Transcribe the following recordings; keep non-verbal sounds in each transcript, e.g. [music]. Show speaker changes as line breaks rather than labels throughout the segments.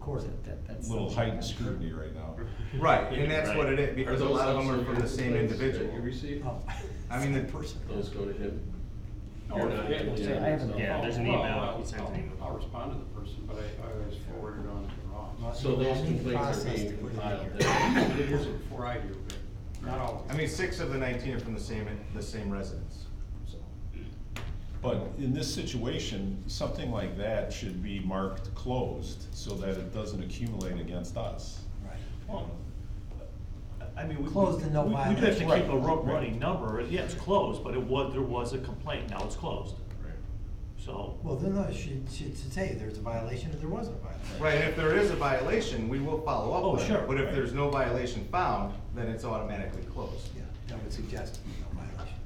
court.
That- that- that's
little
something-
heightened scrutiny right now.
Right, and that's what it is, because a
those
lot of them are
also
from the
your
same
complaints that
individual.
You receive,
Oh.
I mean, the-
person.
those go to him.
No,
You're
if-
not
yeah,
gonna do
I
it,
haven't-
so-
Oh, Yeah, there's an
Well,
email,
I'll-
he sends an email.
I'll respond to the person, but I, I always forward it on to Ross.
So those
Any
complaints are
process
being
to put it
compiled
in
then.
It is before I do, but not always.
I mean, six of the nineteen are from the same, the same residence, so.
But in this situation, something like that should be marked closed so that it doesn't accumulate against us.
Right.
Well, I mean, we.
Closed and no
we- We do have to
violation.
keep a ru-
Right, right.
running number, yeah, it's closed, but it was, there was a complaint, now it's closed, so.
Well, then, no, she, she should say there's a violation or there wasn't a violation.
Right, and if there is a violation, we will follow
Oh,
up with it.
sure.
But if there's no violation found, then it's automatically closed.
Yeah, that would suggest no violation.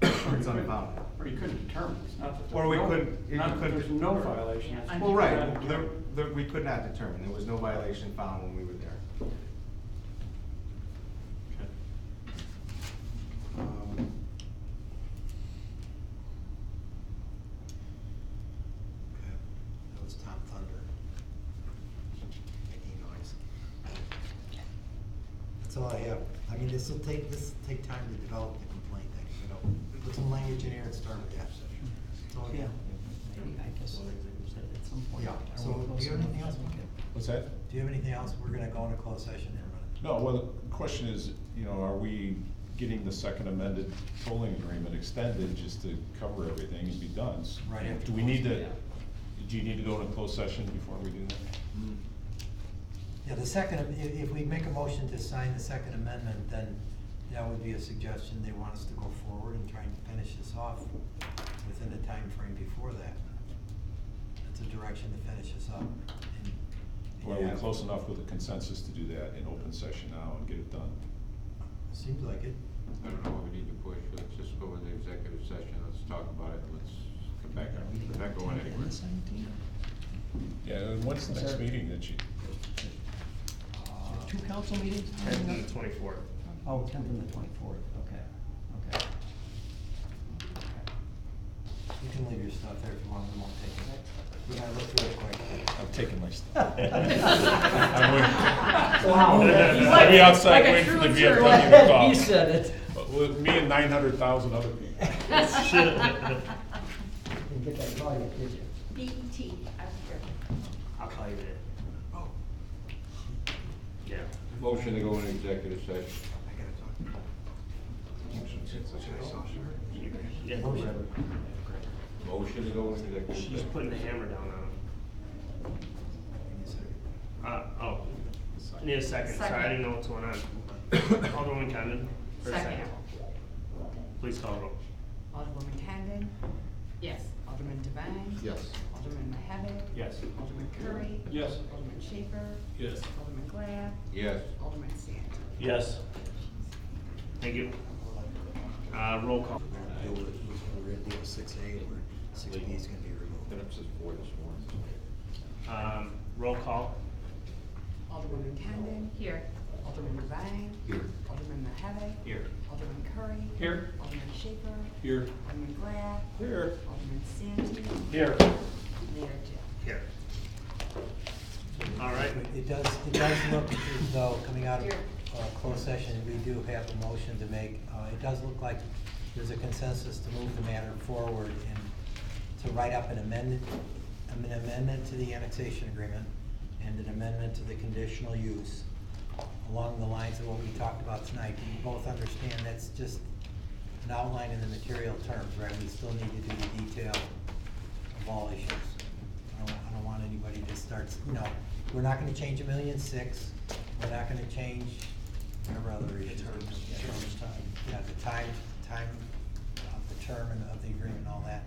Or you
It's
couldn't-
unfounded.
Or you couldn't determine, it's not that there's no.
Or we couldn't- you
Not that
couldn't-
there's no violation. it's
Well, right,
not
there,
determined.
there, we could not determine, there was no violation found when we were there. Um,
Okay, That was Tom Thunder. Making noise. That's all I have. I mean, this'll take, this'll take time to develop the complaint, that, you know, put some language in here and start with that. That's all I
Yeah,
got.
maybe, I guess, at some point.
Yeah,
I
so
will
do
post
you have
it.
anything else?
What's that?
Do you have anything else? We're gonna go into closed session for a minute.
No, well, the question is, you know, are we getting the second amended tolling agreement extended just to cover everything and be done? S-
Right after
Do we need
closing,
to, do you need to go into closed session before we do that?
Yeah, the second, if, if we make a motion to sign the second amendment, then that would be a suggestion, they want us to go forward and try and finish this off within the time frame before that. That's a direction to finish this up. and-
Or are
Yeah.
we close enough with a consensus to do that in open session now and get it done?
Seems like it.
I don't know what we need to push, let's just go with the executive session, let's talk about it, let's come back, we're not going anywhere.
Yeah, and what's the next
Sir.
meeting that you,
Uh,
Two council meetings?
Tenth and the twenty-fourth.
Oh, tenth and the twenty-fourth, okay, okay.
You can leave your stuff there if you want, we won't take it. We're gonna look through it quick.
I'm taking my stuff.
Wow.
He's like- I'll be outside like a waiting for the true VFW to [laughs] insurance. call.
He said it.
With me and nine hundred thousand other people. [laughs]
Didn't get that call yet, did you?
BET, I'm sure.
I'll call you later.
Oh,
Yeah.
Motion to go into executive session.
I gotta talk.
Yeah.
Motion.
Motion to go into executive session.
She's putting the hammer down on him.
Give me a second.
Uh, oh, I need a second, sorry, I
Second.
didn't know what's going on. Alderman Condon? for a
Second.
Please call roll.
Alderwoman Condon,
Yes.
Alderman Devine.
Yes.
Alderman Mahevin.
Yes.
Alderman Curry.
Yes.
Alderman Schaper.
Yes.
Alderman Glab.
Yes.
Alderman Sands.
Yes. Thank you. Uh, roll call.
Deal with, we're gonna deal with six A, where six B is gonna be removed.
Been up since four this morning.
Um, roll call.
Alderwoman Condon.
Here.
Alderman Devine.
Here.
Alderman Mahevin.
Here.
Alderman Curry.
Here.
Alderman Schaper.
Here.
Alderman Glab.
Here.
Alderman Sandy.
Here.
Mayor Jill.
Here. All right.
It does, it does look as though, coming out of
Here.
uh, closed session, we do have a motion to make. Uh, It does look like there's a consensus to move the matter forward and to write up an amendment, an amendment to the annexation agreement and an amendment to the conditional use along the lines of what we talked about tonight. Do you both understand that's just an outline in the material terms, right? We still need to do the detail of all issues. I don't, I don't want anybody to start, you know, we're not gonna change a million six, we're not gonna change whatever other issues. Yeah, terms, time. Yeah, the time, time of the term and of the agreement and all that.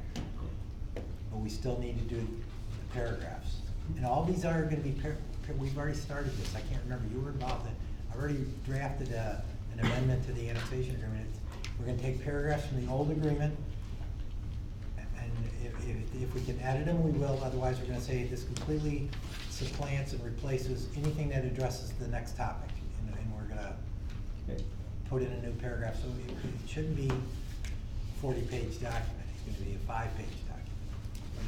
But we still need to do the paragraphs. And all these are gonna be, par- par- we've already started this, I can't remember, you were involved in, I already drafted a, an amendment to the annexation agreement. We're gonna take paragraphs from the old agreement, and if, if, if we can edit them, we will, otherwise we're gonna say this completely supplants and replaces anything that addresses the next topic. And, and we're gonna put in a new paragraph, so it, it shouldn't be forty-page document, it's gonna be a five-page